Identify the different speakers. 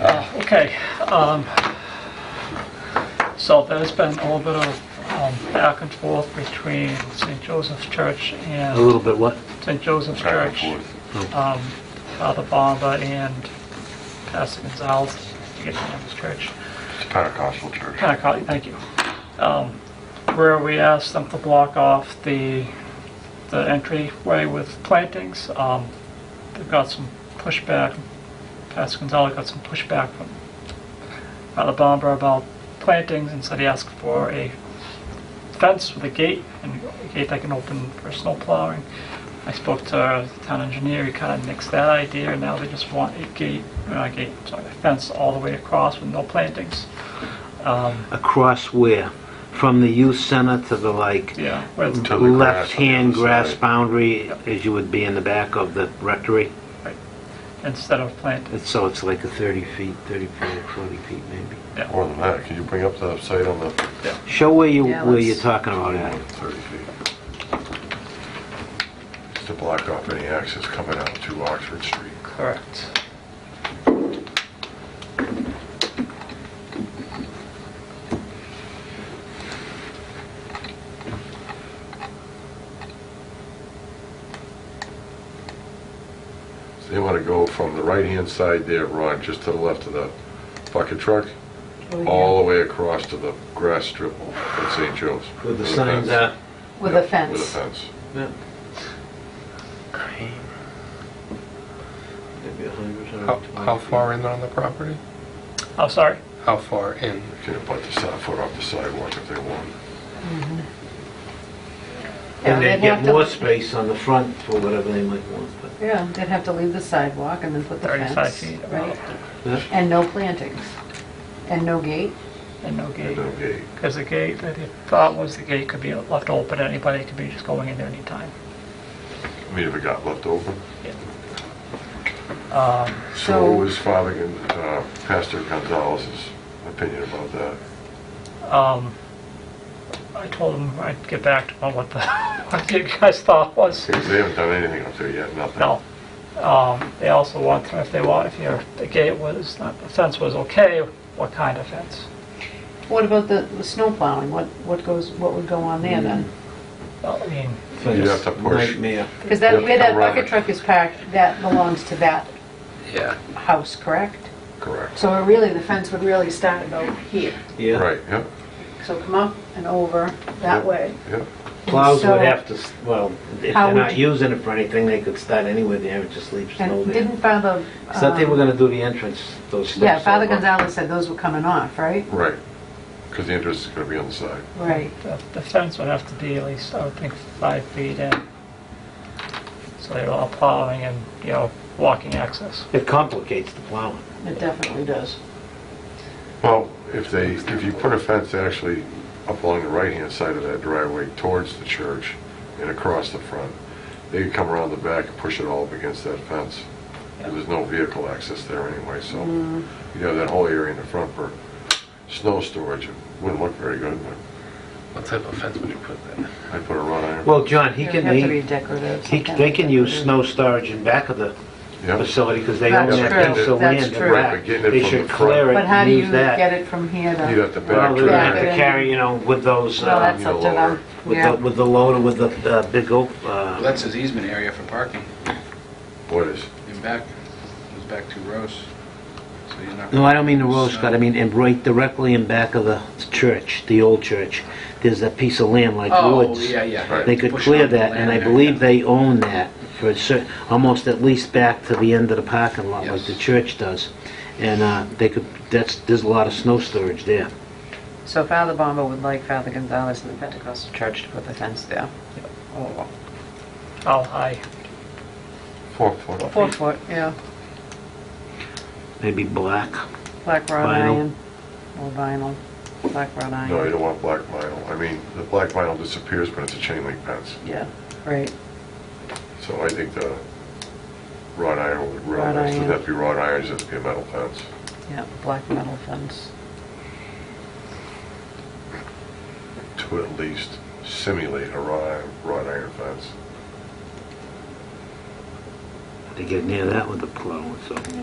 Speaker 1: Ah, Okay, um, so there's been a little bit of um, back and forth between St. Joseph's Church
Speaker 2: A
Speaker 1: and
Speaker 2: little bit what?
Speaker 1: St. Joseph's
Speaker 3: back
Speaker 1: Church,
Speaker 3: and forth.
Speaker 1: um, Father Bonda and Pastor Gonzalez, I forget the name of his church.
Speaker 3: It's a Pentecostal church.
Speaker 1: Pentecost, thank you. Um, Where we asked them to block off the, the entryway with plantings. Um, They got some pushback, Pastor Gonzalez got some pushback from Father Bomber about plantings and said he asked for a fence with a gate, and a gate that can open for snow plowing. I spoke to our town engineer, he kind of nixed that idea, and now they just want a gate, not a gate, sorry, a fence all the way across with no plantings. Um,
Speaker 2: Across where? From the youth center to the like
Speaker 1: Yeah, where it's
Speaker 3: To the grass on the
Speaker 2: left-hand
Speaker 3: other
Speaker 2: grass
Speaker 3: side.
Speaker 2: boundary as you would be in the back of the rectory?
Speaker 1: instead of planted.
Speaker 2: It's- So it's like a 30 feet, 34, 40 feet maybe.
Speaker 3: More than that, can you bring up the site on the
Speaker 2: Show where you,
Speaker 4: Yeah,
Speaker 2: where
Speaker 4: let's-
Speaker 2: you're talking about at.
Speaker 3: 30 feet? To block off any access coming out to Oxford Street.
Speaker 1: Correct.
Speaker 3: So they want to go from the right-hand side there, Ron, just to the left of the bucket truck,
Speaker 4: Oh,
Speaker 3: all the way across to the grass strip at St. Joe's.
Speaker 2: With the
Speaker 3: a
Speaker 2: signs
Speaker 3: fence.
Speaker 2: out.
Speaker 4: With a
Speaker 3: Yep, With a
Speaker 4: fence.
Speaker 3: fence.
Speaker 5: How, how far in on the property?
Speaker 1: Oh, sorry.
Speaker 5: How far in?
Speaker 3: They Can butt the side foot off the sidewalk if they want.
Speaker 4: Yeah,
Speaker 2: And they
Speaker 4: they'd
Speaker 2: get
Speaker 4: have to-
Speaker 2: more space on the front for whatever they might want, but...
Speaker 4: Yeah, they'd have to leave the sidewalk and then put the
Speaker 1: 35
Speaker 4: fence,
Speaker 1: feet
Speaker 4: right?
Speaker 1: about.
Speaker 2: Yeah.
Speaker 4: And no plantings, and no gate.
Speaker 1: And no gate.
Speaker 3: No gate.
Speaker 1: Because the gate, the thought was the gate could be left open, anybody could be just going in there anytime.
Speaker 3: I mean, if it got left open.
Speaker 1: Um,
Speaker 3: So what was Father, Gon- uh, Pastor Gonzalez's opinion about that?
Speaker 1: um, I told him I'd get back to him on what the, what you guys thought was.
Speaker 3: Because they haven't done anything up there yet, nothing.
Speaker 1: No. Um, They also want to know if they want, if your, the gate was, not the fence was okay, what kind of fence?
Speaker 4: What about the the snow plowing? What, what goes, what would go on there then?
Speaker 1: Well, I mean,
Speaker 3: You'd have to push.
Speaker 2: Nightmare.
Speaker 4: Because
Speaker 3: You
Speaker 4: that,
Speaker 3: have
Speaker 4: where
Speaker 3: to
Speaker 4: that
Speaker 3: come around
Speaker 4: bucket
Speaker 3: it.
Speaker 4: truck is parked, that belongs to that
Speaker 5: Yeah.
Speaker 4: house, correct?
Speaker 3: Correct.
Speaker 4: So it really, the fence would really start about here.
Speaker 2: Yeah.
Speaker 3: Right, yeah,
Speaker 4: So come up and over that way.
Speaker 3: yeah.
Speaker 2: Plows
Speaker 4: So-
Speaker 2: would have to, s- well, if
Speaker 4: How
Speaker 2: they're
Speaker 4: would
Speaker 2: not
Speaker 4: you-
Speaker 2: using it for anything, they could start anywhere there and just leave snow
Speaker 4: And
Speaker 2: there.
Speaker 4: didn't Father...
Speaker 2: I thought they were
Speaker 4: um,
Speaker 2: gonna do the entrance, those steps.
Speaker 4: Yeah, Father
Speaker 2: over.
Speaker 4: Gonzalez said those were coming off, right?
Speaker 3: Right. Because the entrance is going to be on the side.
Speaker 4: Right.
Speaker 1: The the fence would have to be at least, I would think, five feet in. So they're all plowing and, you know, walking access.
Speaker 2: It complicates the plowing.
Speaker 4: It definitely does.
Speaker 3: Well, if they, if you put a fence actually up along the right-hand side of that driveway towards the church and across the front, they could come around the back and push it all up against that fence. And There's no vehicle access there anyway, so
Speaker 4: Mm-hmm.
Speaker 3: you have that whole area in the front for snow storage. It wouldn't look very good, but
Speaker 5: What type of fence would you put then?
Speaker 3: I'd put a wrought iron.
Speaker 2: Well, John, he
Speaker 4: It would
Speaker 2: can,
Speaker 4: have to be
Speaker 2: he,
Speaker 4: decorative.
Speaker 2: he-
Speaker 4: something
Speaker 2: they can use
Speaker 4: decorative.
Speaker 2: snow storage in back of the
Speaker 3: Yeah.
Speaker 2: facility, because they own
Speaker 4: That's
Speaker 2: that
Speaker 4: true,
Speaker 2: piece of
Speaker 4: that's
Speaker 2: land
Speaker 4: true.
Speaker 2: in
Speaker 3: Right,
Speaker 2: back.
Speaker 3: but getting it
Speaker 2: They
Speaker 3: from
Speaker 2: should
Speaker 3: the front.
Speaker 2: clear it
Speaker 4: But how
Speaker 2: and
Speaker 4: do you
Speaker 2: use
Speaker 4: get
Speaker 2: that.
Speaker 4: it from here to?
Speaker 3: You'd have to
Speaker 2: Well,
Speaker 3: back
Speaker 2: they
Speaker 4: Back
Speaker 2: have
Speaker 4: it
Speaker 2: to
Speaker 4: in.
Speaker 3: to
Speaker 2: carry, you know, with those,
Speaker 4: Well,
Speaker 2: uh,
Speaker 4: that's
Speaker 3: you
Speaker 4: up
Speaker 3: know,
Speaker 4: to them,
Speaker 3: lower.
Speaker 2: with the,
Speaker 4: yeah.
Speaker 2: with the loader, with the, uh, big oak,
Speaker 5: Well,
Speaker 2: uh,
Speaker 5: that's his easement area for parking
Speaker 3: what is,
Speaker 5: in back, goes back to Rose. So you're not.
Speaker 2: no, I don't mean the Rose Garden, I mean, in right directly in back of the church, the old church. There's that piece of land like
Speaker 5: Oh,
Speaker 2: woods.
Speaker 5: yeah, yeah.
Speaker 3: Right.
Speaker 2: They could
Speaker 5: Push
Speaker 2: clear
Speaker 5: up the
Speaker 2: that, and I
Speaker 5: land there,
Speaker 2: believe
Speaker 5: yeah.
Speaker 2: they own that for a cer, almost at least back to the end of the parking lot, like
Speaker 5: Yes.
Speaker 2: the church does. And uh, they could, that's, there's a lot of snow storage there.
Speaker 4: So Father Bomba would like Father Gonzalez in the Pentecostal church to put the fence there. Oh,
Speaker 1: How high?
Speaker 3: four foot?
Speaker 4: Four foot, yeah,
Speaker 2: Maybe black.
Speaker 4: black wrought
Speaker 2: Vinyl.
Speaker 4: iron, or vinyl, black wrought
Speaker 3: No, you
Speaker 4: iron.
Speaker 3: don't want black vinyl. I mean, the black vinyl disappears, but it's a chain link fence.
Speaker 4: Yeah, right,
Speaker 3: So I think the wrought iron would real
Speaker 4: Wrought
Speaker 3: nice. Doesn't
Speaker 4: iron.
Speaker 3: have to be wrought iron, it has to be a metal fence.
Speaker 4: yeah, black metal fence.
Speaker 3: To at least simulate a wrought iron, wrought iron fence.
Speaker 2: They get near that with the plow and so.